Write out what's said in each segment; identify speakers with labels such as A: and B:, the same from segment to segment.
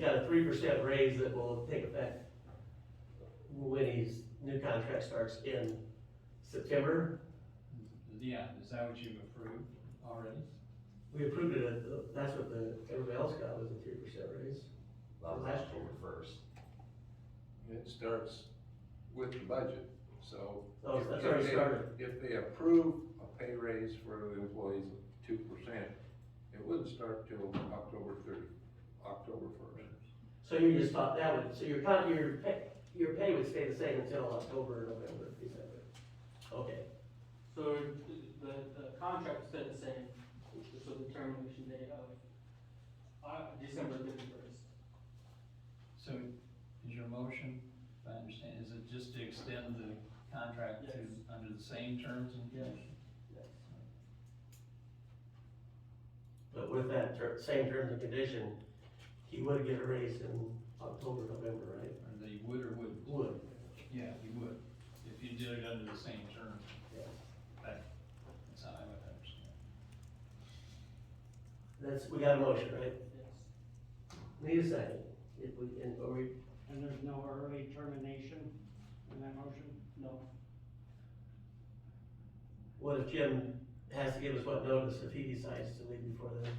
A: got a three percent raise that will take effect when his new contract starts in September.
B: Yeah, is that what you've approved already?
A: We approved it, at- that's what the, everybody else got was a three percent raise.
C: That was October first.
D: It starts with the budget, so.
A: Oh,
D: if-
A: that's
D: if
A: already
D: they-
A: started.
D: If they approve a pay raise for the employees of two percent, it wouldn't start till October thirty, October first.
A: So you just thought that would, so your con, your pay, your pay would stay the same until October, November, December. Okay,
E: So the, the contract stayed the same, just with the termination date of, uh, December thirty-first.
B: So is your motion, if I understand, is it just to extend the contract to,
E: Yes.
B: under the same terms and
E: Yes.
B: conditions?
A: but with that ter- same terms and condition, he would get a raise in October, November, right?
B: Or they would or wouldn't?
A: Would,
B: Yeah, you would, if you did it under the same terms.
A: yes.
B: That, that's how I would understand.
A: That's, we got a motion, right?
E: Yes.
A: Need a second. If we, and, or we,
F: And there's no early termination in that motion?
E: No,
A: what if Jim has to give us what notice if he decides to leave before then?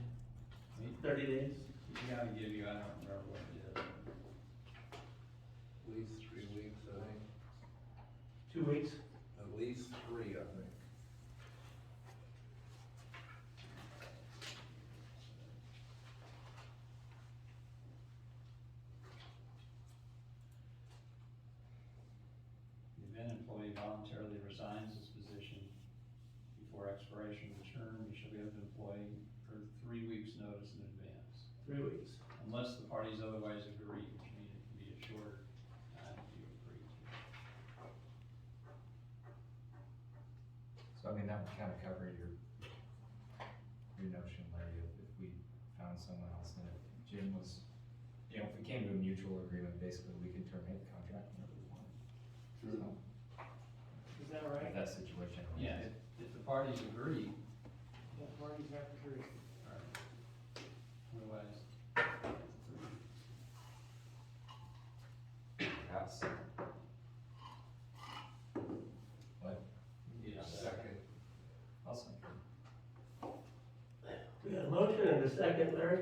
A: Thirty days?
B: We gotta give you, I don't remember what it is.
D: At least three weeks, I think,
A: Two weeks?
D: at least three, I think.
B: If an employee voluntarily resigns his position before expiration of the term, he shall be able to employ for three weeks' notice in advance.
A: Three weeks.
B: Unless the parties otherwise agree, which means it can be a shorter time if you agree.
C: So I mean, that would kind of cover your, your notion, Larry, if, if we found someone else and if Jim was, you know, if we came to a mutual agreement, basically, we could terminate the contract whenever we wanted. So,
F: Is that
C: if
F: right?
C: that situation. arises.
B: Yeah, if, if the parties agree,
F: The parties have to agree.
B: or otherwise,
C: Perhaps. What?
B: yeah.
D: Second.
C: Also,
A: We got a motion and a second, Larry?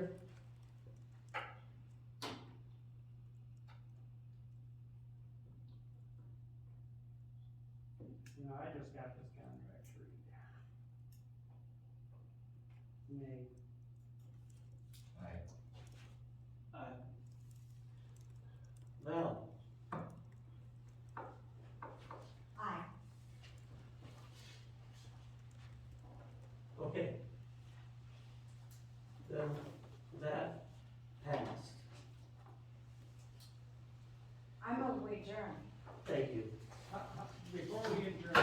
F: You know, I just got this contract to read. May,
C: I,
E: I,
A: Val?
G: Aye.
A: Okay. Then that passed.
G: I'm a wager.
A: Thank you.
F: how- how- before we adjourn,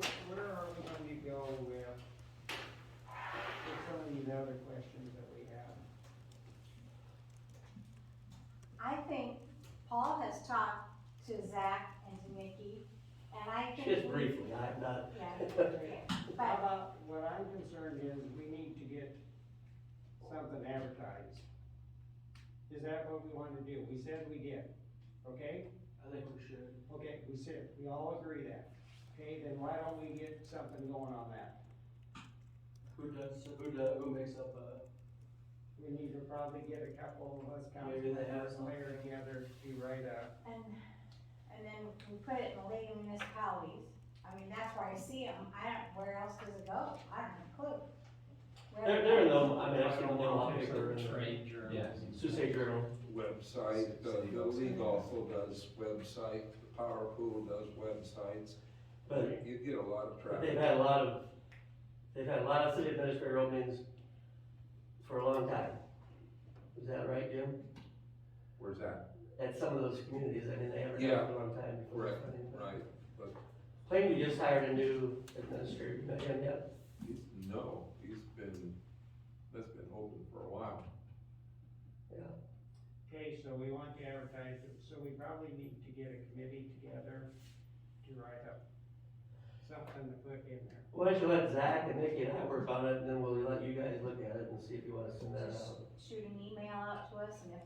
F: wh- where are we going to go with, with some of these other questions that we have?
G: I think Paul has talked to Zach and to Nikki, and I think.
A: Just
G: we-
A: briefly, I'm not.
G: Yeah.
F: How
G: But,
F: about, what I'm concerned is, we need to get something advertised. Is that what we want to do? We said we did, okay?
E: I think we should,
F: Okay, we said, we all agree that. Okay, then why don't we get something going on that?
E: who does, who does, who makes up uh, a,
F: We need to probably get a couple of us
E: Maybe they have
F: councilors,
E: something.
F: mayor together to write a,
G: and, and then we put it in the League of Municipalities. I mean, that's where I see them. I don't, where else does it go? I don't have a clue. Where-
A: There, there are no, I mean, I
B: Or
A: don't know.
B: pick or Trade journals.
A: Sioux State Journal.
D: Website, the, the league also does website, the power pool does websites,
A: But
D: you get a lot of
A: But They've
D: traffic.
A: had a lot of, they've had a lot of city administrator openings for a long time. Is that right, Jim?
D: Where's that?
A: At some of those communities, I mean, they haven't had it for a long time. before
D: Right,
A: funding, but-
D: right,
A: Plainview just hired a new administrator, you know him yet?
D: He's- No, he's been, that's been open for a while.
F: okay, so we want to advertise it, so we probably need to get a committee together to write up something to put in there.
A: Why don't you let Zach and Nikki and I work on it, and then we'll let you guys look at it and see if you wanna send that out.
G: Just shoot an email out to us, and if